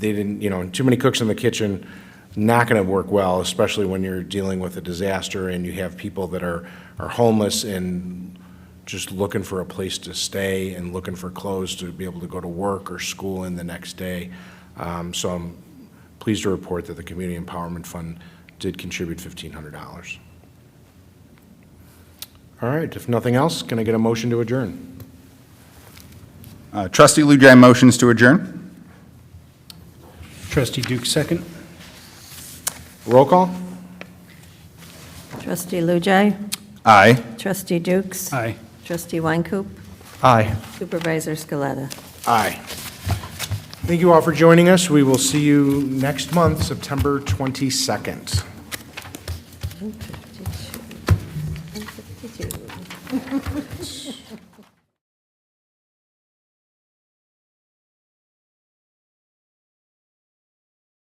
they didn't, you know, too many cooks in the kitchen, not going to work well, especially when you're dealing with a disaster and you have people that are, are homeless and just looking for a place to stay and looking for clothes to be able to go to work or school in the next day. Um, So I'm pleased to report that the Community Empowerment Fund did contribute $1,500. All right, if nothing else, can I get a motion to adjourn? Uh, Trustee Lujan motions to adjourn. Trustee Duke, second. Roll call? Trustee Lujai. Aye. Trustee Dukes. Aye. Trustee Weincoop. Aye. Supervisor Scaletta. Aye. Thank you all for joining us. We will see you next month, September 22nd.